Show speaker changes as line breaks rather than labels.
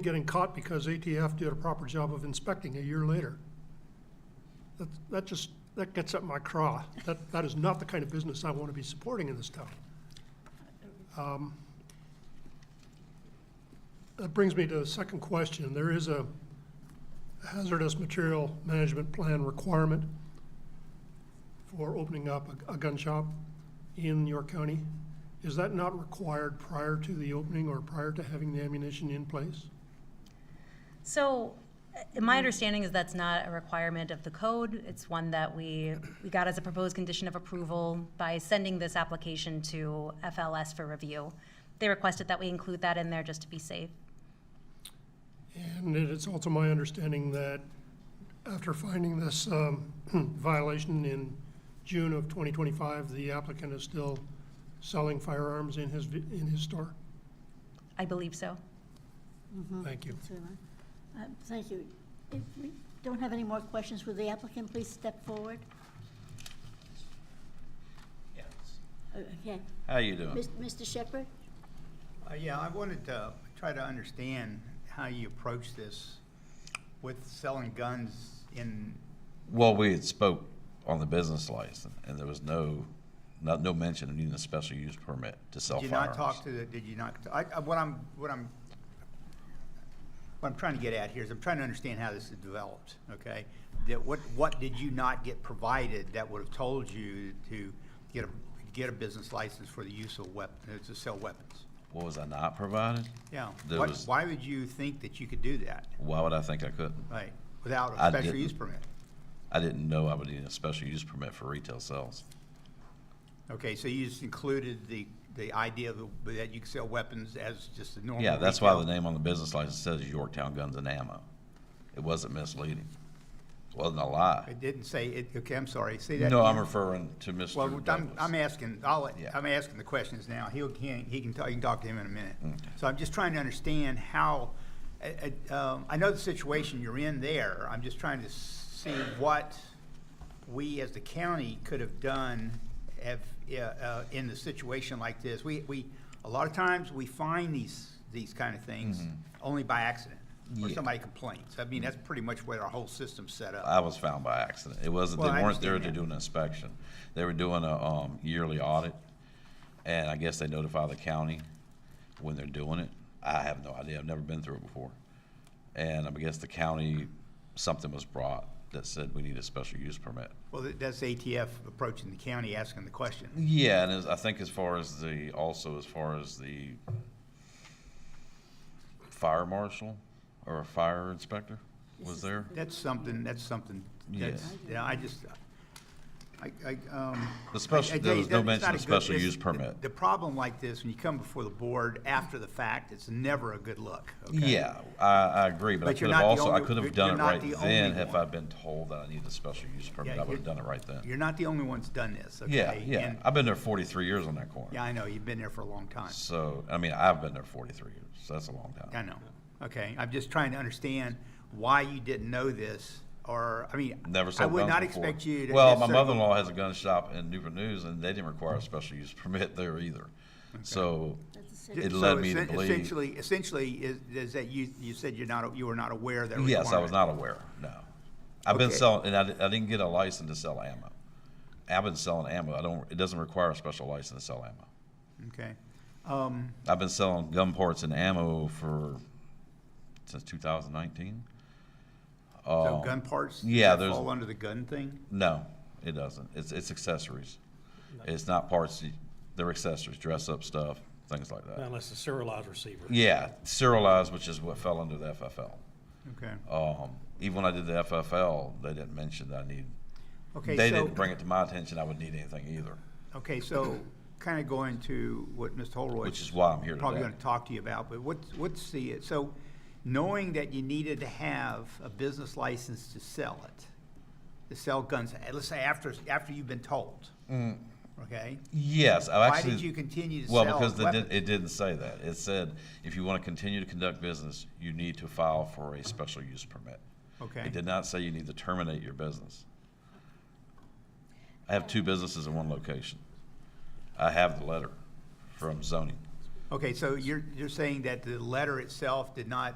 getting caught because ATF did a proper job of inspecting a year later. That, that just, that gets up my craw. That, that is not the kind of business I want to be supporting in this town. Um, That brings me to the second question. There is a hazardous material management plan requirement for opening up a, a gun shop in York County. Is that not required prior to the opening or prior to having the ammunition in place?
So, uh, my understanding is that's not a requirement of the code. It's one that we, we got as a proposed condition of approval by sending this application to FLS for review. They requested that we include that in there just to be safe.
And it is also my understanding that after finding this um, violation in June of 2025, the applicant is still selling firearms in his, vi- in his store?
I believe so.
Thank you.
Suleiman. Uh, Thank you. If we don't have any more questions, will the applicant please step forward?
Yes.
Uh, Okay.
How you doing?
Mis- Mr. Shepherd?
Uh, yeah, I wanted to try to understand how you approach this with selling guns in,
Well, we had spoke on the business license, and there was no, not, no mention of needing a special use permit to sell
did you
firearms.
not talk to the, did you not, I, I- what I'm, what I'm, what I'm trying to get at here is I'm trying to understand how this is developed, okay? That what, what did you not get provided that would have told you to get a, get a business license for the use of weapons, to sell weapons?
What was I not provided?
Yeah,
There
what,
was-
why would you think that you could do that,
Why would I think I couldn't?
right, without a
I
special
didn't.
use permit?
I didn't know I would need a special use permit for retail sales.
Okay, so you just included the, the idea of the- that you could sell weapons as just a normal.
Yeah, that's why the
retail-
name on the business license says Yorktown Guns and Ammo. It wasn't misleading. It wasn't a lie.
It didn't say, it, okay, I'm sorry, say that.
No, I'm
again.
referring to Mr.
Well, I'm, I'm
Douglas.
asking, I'll, let-
Yeah.
I'm asking the questions now. He'll, he, he can, talk- you can talk to him in a minute.
Mm.
So I'm just trying to understand how, I, I, um, I know the situation you're in there. I'm just trying to see what we as the county could have done have, uh, uh, in the situation like this. We, we, a lot of times we find these, these kind of things only by accident or
Mm-hmm. Yeah.
somebody complains. I mean, that's pretty much what our whole system's set up.
I was found by accident. It wasn't, they
Well, I
weren't there
understand
to
that.
do an inspection. They were doing a, um, yearly audit, and I guess they notify the county when they're doing it. I have no idea. I've never been through it before. And I guess the county, something was brought that said we need a special use permit.
Well, that- that's ATF approaching the county, asking the question.
Yeah, and as, I think as far as the, also as far as the fire marshal or a fire inspector was there?
That's something, that's something,
Yeah.
that's, yeah, I just, I, I, um.
The special-
I- I-
there was no
it's
mention
not
of
a good-
special
it's-
use permit.
The problem like this, when you come before the board after the fact, it's never a good look, okay?
Yeah, I, I agree, but I
But
could
you're not
have
the
also, I
only-
could
you're-
have done
you're
it
not
right
the only
then if
one.
I'd been told that I needed a special use permit,
Yeah,
I would have
you're-
done it right then.
You're not the only one's done this, okay?
Yeah, yeah,
And-
I've been there forty-three years on that corner.
Yeah, I know, you've been there for a long time.
So, I mean, I've been there forty-three years, so that's a long
I
time.
know, okay, I'm just trying to understand why you didn't know this, or, I mean.
Never
I
sold
would
guns
not
before.
expect you to.
Well, my
necessarily-
mother-in-law has a gun shop in Newport News, and they didn't require a special use permit there either. So,
That's the second.
it
So
led me to
essen-
believe,
Essentially, essentially, is, is that you, you said you're not, you were not aware of that requirement?
yes, I was not aware, no. I've been
Okay.
selling, and I, di- I didn't get a license to sell ammo. I've been selling ammo, I don't, it doesn't require a special license to sell ammo.
Okay. Um,
I've been selling gun parts and ammo for since 2019.
So gun parts? does
Um, yeah,
that
there's-
Fall under the gun thing?
No, it doesn't. It's it's accessories. It's not parts. They're accessories, dress up stuff, things like that.
Unless the serialized receiver.
Yeah, serialized, which is what fell under the FFL.
Okay.
Um, even when I did the FFL, they didn't mention that I need.
Okay,
they
so-
didn't bring it to my attention. I would need anything either,
Okay, so kind of going to what Mr. Holroyd.
which is why I'm here
Probably
today.
going to talk to you about, but what's, what's the, so knowing that you needed to have a business license to sell it, to sell guns, eh, let's say after, after you've been told. Okay?
Yes, I
Why
Mm. actually.
did you continue to
Well,
sell
because they did,
weapons?
it didn't say that. It said, if you want to continue to conduct business, you need to file for a special use permit.
Okay.
It did not say you need to terminate your business. I have two businesses in one location. I have the letter from zoning.
Okay, so you're, you're saying that the letter itself did not